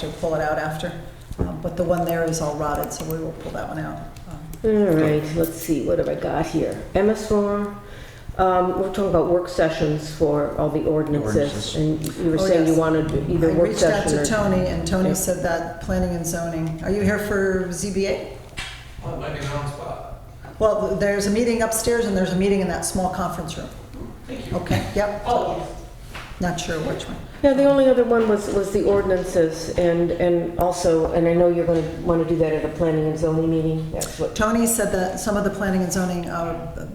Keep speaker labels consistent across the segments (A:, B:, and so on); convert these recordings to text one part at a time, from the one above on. A: to pull it out after. Um, But the one there is all rotted, so we will pull that one out. Um,
B: All right, let's see, what have I got here? MS4, um, we're talking about work sessions for all the ordinances.
C: Ordinances.
B: And you were
A: Oh,
B: saying you
A: yes.
B: wanted
A: I
B: either work
A: reached out
B: session
A: to
B: or...
A: Tony, and Tony
B: Yeah.
A: said that planning and zoning. Are you here for ZBA?
D: Well, it might be the wrong spot.
A: Well, there's a meeting upstairs and there's a meeting in that small conference room.
D: Thank you.
A: Okay, yep,
D: Oh,
A: not sure which one.
B: Yeah, the only other one was, was the ordinances and, and also, and I know you're going to want to do that at a planning and zoning meeting, that's what,
A: Tony said that some of the planning and zoning uh,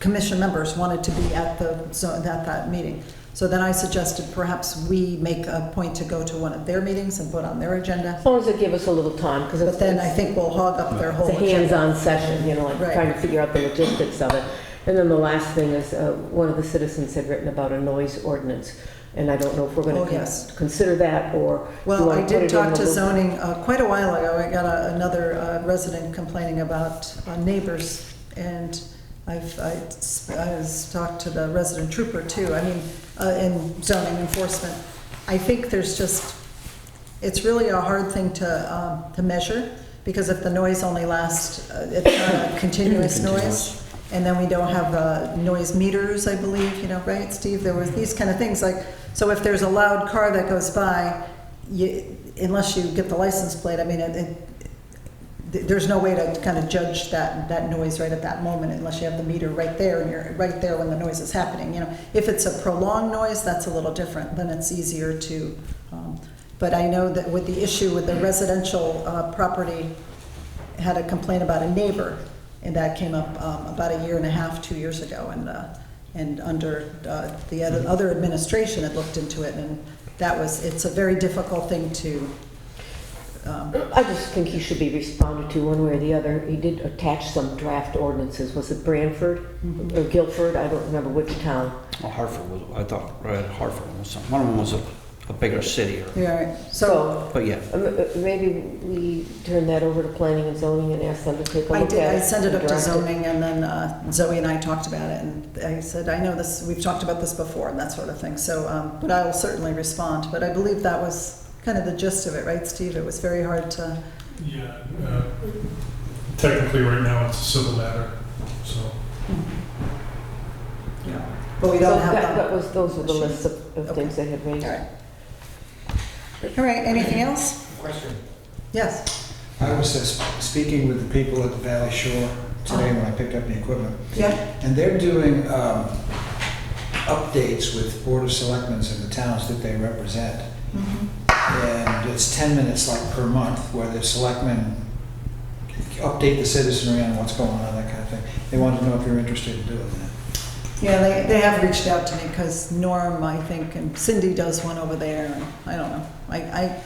A: commission members wanted to be at the, zo- at that meeting. So then I suggested perhaps we make a point to go to one of their meetings and put on their agenda.
B: as long as they give us a little time, because
A: But
B: it's
A: then I
B: it's
A: think we'll hog up their whole
B: a
A: agenda.
B: hands-on session, you know, like
A: Right.
B: trying to figure out the logistics of it. And then the last thing is, uh, one of the citizens had written about a noise ordinance, and I don't know if we're
A: Oh,
B: going
A: yes.
B: to consider that or... you
A: Well,
B: wanna
A: I
B: put
A: did
B: it in
A: talk
B: the
A: to
B: loop.
A: zoning uh, quite a while ago. I got a- another uh, resident complaining about uh, neighbors, and I've, I s- I was talked to the resident trooper too, I mean, uh, in zoning enforcement. I think there's just, it's really a hard thing to, um, to measure, because if the noise only lasts, uh, it's not a continuous noise, and then we don't have uh, noise meters, I believe, you know, right, Steve? There was these kind of things, like, so if there's a loud car that goes by, you, unless you get the license plate, I mean, it, it- th- there's no way to kind of judge that, that noise right at that moment unless you have the meter right there and you're right there when the noise is happening, you know. If it's a prolonged noise, that's a little different, then it's easier to, um, but I know that with the issue with the residential uh, property, had a complaint about a neighbor, and that came up um, about a year and a half, two years ago, and, uh, and under, uh, the other other administration had looked into it, and that was, it's a very difficult thing to, um,
B: I just think he should be responded to one way or the other. He did attach some draft ordinances. Was it Branford
A: Mm-hmm.
B: or Guilford? I don't remember which town.
C: Well, Hartford was, I thought, right, Hartford was something. One of them was a, a bigger city or,
A: yeah, so.
B: So
C: but yeah.
B: um, uh, maybe we turn that over to planning and zoning and ask them to take a
A: I
B: look at it.
A: did, I sent it
B: and
A: up to
B: direct
A: zoning, and then uh, Zoe and I talked about it, and I said, I know this, we've talked about this before, and that sort of thing, so, um, but I will certainly respond, but I believe that was kind of the gist of it, right, Steve? It was very hard to,
E: Yeah, uh, technically, right now, it's a civil matter, so.
A: but we
B: So
A: don't have
B: that-
A: that.
B: That was, those were the lists of, of
A: Okay.
B: things they had raised.
A: All right. All right, anything else?
F: Question.
A: Yes,
F: I was uh, speaking with the people at the Valley Shore today when I picked up the equipment,
A: yeah,
F: and they're doing um, updates with Board of Selectmen in the towns that they represent.
A: Mm-hmm.
F: And it's 10 minutes like per month where the selectmen update the citizenry on what's going on, that kind of thing. They want to know if you're interested in doing that.
A: yeah, they, they have reached out to me, because Norm, I think, and Cindy does one over there, and I don't know. I, I,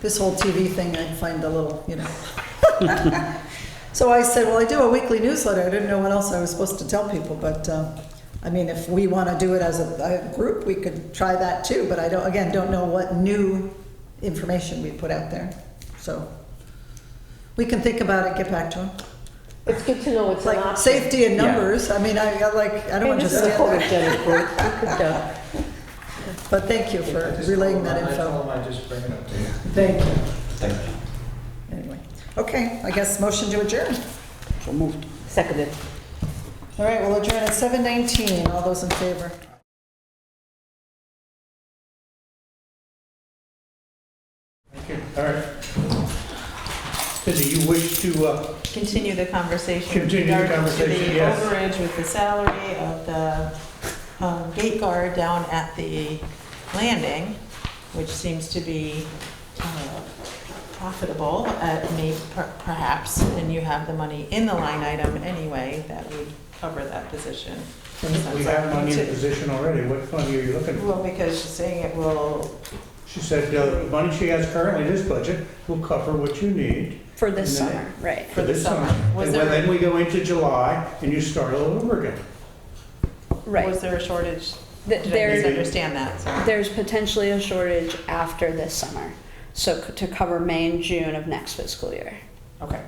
A: this whole TV thing, I find a little, you know. So I said, well, I do a weekly newsletter, I didn't know what else I was supposed to tell people, but, um, I mean, if we want to do it as a, a group, we could try that too, but I don't, again, don't know what new information we put out there, so. We can think about it, get back to them.
B: It's good to know it's
A: It's
B: an
A: like
B: option.
A: safety in
C: Yeah.
A: numbers, I mean, I, I like, I don't
B: Hey, this is a
A: understand that,
B: photogenic group. We could, uh,
A: but thank you for relaying that
F: I told
A: info.
F: them I'd just bring it up to you.
A: Thank you.
C: Thank you.
A: Anyway, okay, I guess motion to adjourn.
C: So moved.
B: Seconded.
A: All right, we'll adjourn at seven nineteen, all those in favor?
G: All right. Cindy, you wish to, uh,
H: continue the conversation. with
G: Continue the
H: regard to
G: conversation, yes.
H: The overage with the salary of the um, gate guard down at the landing, which seems to be uh, profitable at may- per- perhaps, and you have the money in the line item anyway that would cover that position.
G: we have money in the position already, what money are you looking for?
H: Well, because she's saying it will,
G: She said, uh, the money she has currently in this budget will cover what you need
I: For this
G: And then-
I: summer, right.
G: for this summer.
H: Was
G: And
H: there-
G: then we go into July and you start all over again.
I: Right.
H: was there a shortage?
I: Th-
H: Did I
I: There's,
H: misunderstand that? Sorry.
I: there's potentially a shortage after this summer. So c- to cover May and June of next fiscal year.
H: Okay,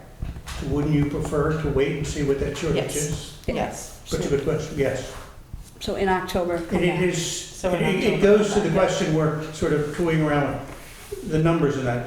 G: Wouldn't you prefer to wait and see what that shortage
I: Yes.
G: is?
H: yes.
G: That's a good question, yes.
I: So in October, come
G: And it
I: back.
G: is,
H: So we're not
G: it
H: talking
G: it goes to
H: about
G: the
H: that.
G: question, we're sort of toying around with the numbers in that,